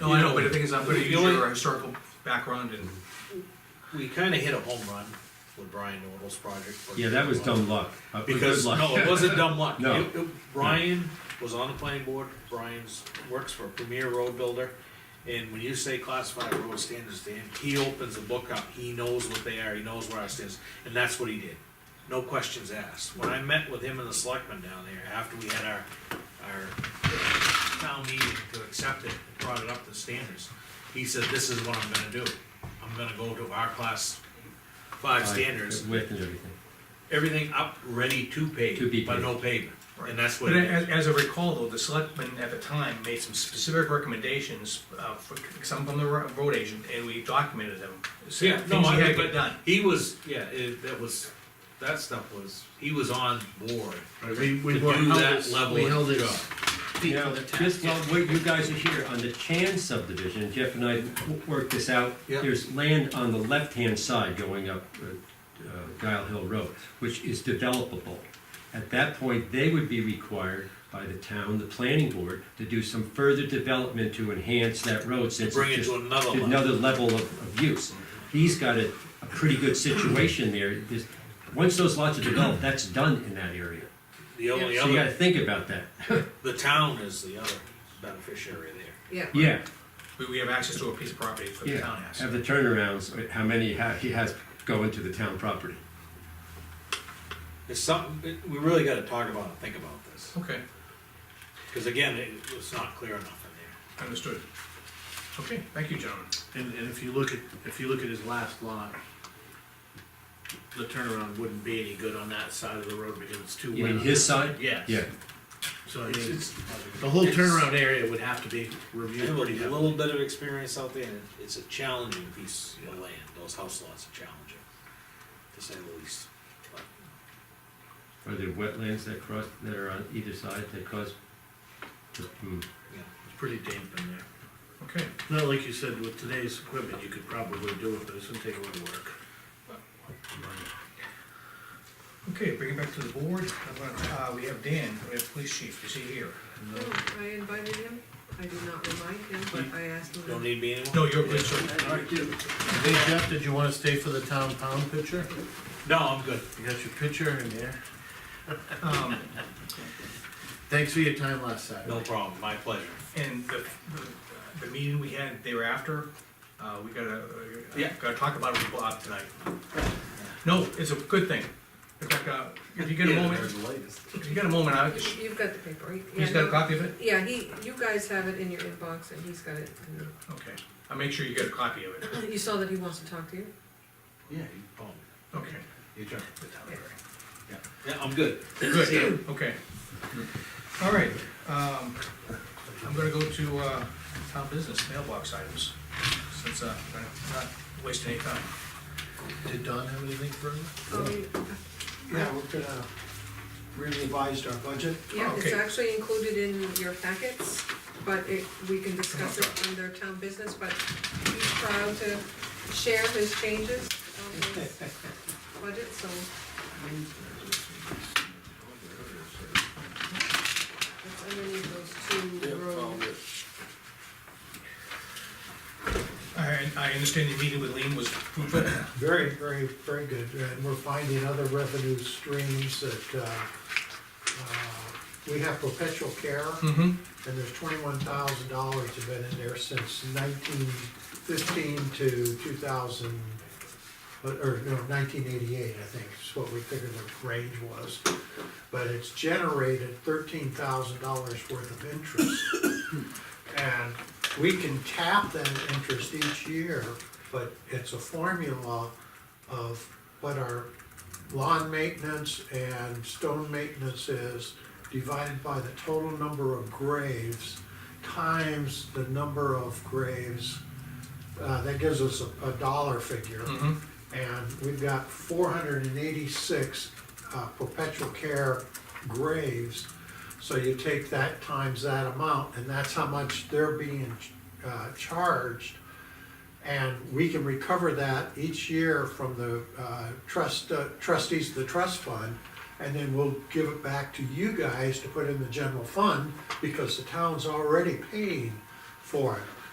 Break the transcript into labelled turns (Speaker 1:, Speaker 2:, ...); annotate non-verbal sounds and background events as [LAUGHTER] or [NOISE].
Speaker 1: No, I know, but the thing is, I'm gonna
Speaker 2: The
Speaker 1: use
Speaker 2: only-
Speaker 1: your historical background and,
Speaker 2: We kinda hit a home run with Brian Nordell's project. for-
Speaker 3: Yeah, that was dumb luck. Uh, good
Speaker 2: Because,
Speaker 3: luck. [LAUGHS]
Speaker 2: no, it wasn't dumb luck.
Speaker 3: No.
Speaker 2: It- it- Brian was on the planning board, Brian's, works for a premier road builder, and when you say classified road standards to him, he opens the book up, he knows what they are, he knows where our standards, and that's what he did. No questions asked. When I met with him and the selectmen down there, after we had our, our town meeting to accept it, brought it up to standards, he said, this is what I'm gonna do. I'm gonna go to our class five standards,
Speaker 3: Width and everything.
Speaker 2: everything up, ready to
Speaker 3: To be
Speaker 2: pave, but
Speaker 3: paved.
Speaker 2: no pavement,
Speaker 1: Right.
Speaker 2: and that's what
Speaker 1: but
Speaker 2: it is.
Speaker 1: as, as I recall though, the selectmen at the time made some specific recommendations, uh, for, some from the ro- road agent, and we documented them. So
Speaker 2: Yeah, no,
Speaker 1: Things
Speaker 2: I
Speaker 1: he had
Speaker 2: mean,
Speaker 1: to get
Speaker 2: but
Speaker 1: done.
Speaker 2: he was, yeah, it, that was, that stuff was, he was on board
Speaker 4: Right, we,
Speaker 2: to
Speaker 4: we
Speaker 2: do
Speaker 4: were.
Speaker 2: that level
Speaker 4: We held
Speaker 2: of
Speaker 4: it
Speaker 2: job.
Speaker 4: feet
Speaker 3: Now,
Speaker 4: to the task.
Speaker 3: just while we- you guys are here, on the Chan subdivision, Jeff and I w- worked this out.
Speaker 2: Yeah.
Speaker 3: There's land on the left-hand side going up uh, uh, Dial Hill Road, which is developable. At that point, they would be required by the town, the planning board, to do some further development to enhance that road since
Speaker 2: Bring
Speaker 3: it's
Speaker 2: it
Speaker 3: just
Speaker 2: to another
Speaker 3: to
Speaker 2: level.
Speaker 3: another level of, of use. He's got a, a pretty good situation there. There's- Once those lots are developed, that's done in that area.
Speaker 2: The only
Speaker 3: So you gotta
Speaker 2: other,
Speaker 3: think about that. [LAUGHS]
Speaker 2: the town is the other beneficiary there.
Speaker 5: Yeah.
Speaker 3: Yeah,
Speaker 1: We, we have access to a piece of property for the
Speaker 3: yeah.
Speaker 1: town has.
Speaker 3: Have the turnarounds, uh, how many ha- he has go into the town property.
Speaker 2: It's something, it- we really gotta talk about and think about this,
Speaker 1: Okay,
Speaker 2: cause again, it was not clear enough in
Speaker 1: understood. Okay, thank you, gentlemen.
Speaker 4: And, and if you look at, if you look at his last lot, the turnaround wouldn't be any good on that side of the road because it's too wet.
Speaker 3: You mean his side?
Speaker 4: Yes.
Speaker 3: Yeah,
Speaker 4: So I
Speaker 2: there.
Speaker 4: mean,
Speaker 2: It's-
Speaker 4: the whole
Speaker 2: it's-
Speaker 4: turnaround area would have to be
Speaker 2: You
Speaker 4: reviewed
Speaker 2: have
Speaker 4: pretty
Speaker 2: a
Speaker 4: heavily.
Speaker 2: little bit of experience out there, and it's a challenging piece of land, those house lots are challenging, to say the least. But
Speaker 3: are there wetlands that cross, that are on either side that cause? Hmm.
Speaker 4: It's pretty damp in there.
Speaker 1: Okay,
Speaker 4: Not like you said, with today's equipment, you could probably do it, but it's gonna take a lot of work.
Speaker 1: okay, bring it back to the board. Uh, we have Dan, we have police chief, is he here?
Speaker 5: Oh, I invited him, I did not remind him, but I asked him.
Speaker 2: Don't need me anymore?
Speaker 1: No, you're a police chief.
Speaker 4: Hey Jeff, did you wanna stay for the town pound picture?
Speaker 2: No, I'm good.
Speaker 4: You got your picture in there. [LAUGHS]
Speaker 1: Um,
Speaker 4: Thanks for your time last Saturday.
Speaker 2: No problem, my pleasure.
Speaker 1: And the, the- the meeting we had thereafter, uh, we gotta, uh,
Speaker 2: Yeah.
Speaker 1: gotta talk about it with Bob tonight. No, it's a good thing. In fact, uh, if you get a moment, if you get a moment, I,
Speaker 5: You- You've got the paper, right?
Speaker 1: he's
Speaker 5: Yeah,
Speaker 1: got a
Speaker 5: no-
Speaker 1: copy of it?
Speaker 5: Yeah, he, you guys have it in your inbox and he's got it. in the- [CLEARS THROAT]
Speaker 1: Okay, I'll make sure you get a copy of it.
Speaker 5: You saw that he wants to talk to you?
Speaker 2: Yeah, you call
Speaker 1: Okay,
Speaker 2: me. Yeah, I'm good.
Speaker 1: good, okay. All right, um, I'm gonna go to, uh, town business mailbox items, since, uh, I'm not wasting any time.
Speaker 4: Did Don have anything for you?
Speaker 5: Oh, you-
Speaker 6: Yeah, we're gonna, we revised our budget.
Speaker 5: Yeah, it's
Speaker 1: oh, Okay.
Speaker 5: actually included in your packets, but it, we can discuss it under town business, but he's proud to share his changes on
Speaker 1: [LAUGHS]
Speaker 5: his budget, so. That's underneath those two rows.
Speaker 1: I, I understand your meeting with Lean was fruitful.
Speaker 6: Very, very, very good, and we're finding other revenue streams that, uh, uh, we have perpetual care,
Speaker 1: Mm-hmm.
Speaker 6: and there's twenty-one thousand dollars have been in there since nineteen fifteen to two thousand, or, no, nineteen eighty-eight, I think, is what we figured the range was. But it's generated thirteen thousand dollars worth of interest. And we can tap that interest each year, but it's a formula of what our lawn maintenance and stone maintenance is divided by the total number of graves times the number of graves. Uh, that gives us a, a dollar figure.
Speaker 1: Mhm.
Speaker 6: And we've got four hundred and eighty-six, uh, perpetual care graves. So you take that times that amount, and that's how much they're being, uh, charged. And we can recover that each year from the uh, trust, uh, trustees of the trust fund. And then we'll give it back to you guys to put in the general fund because the town's already paying for it.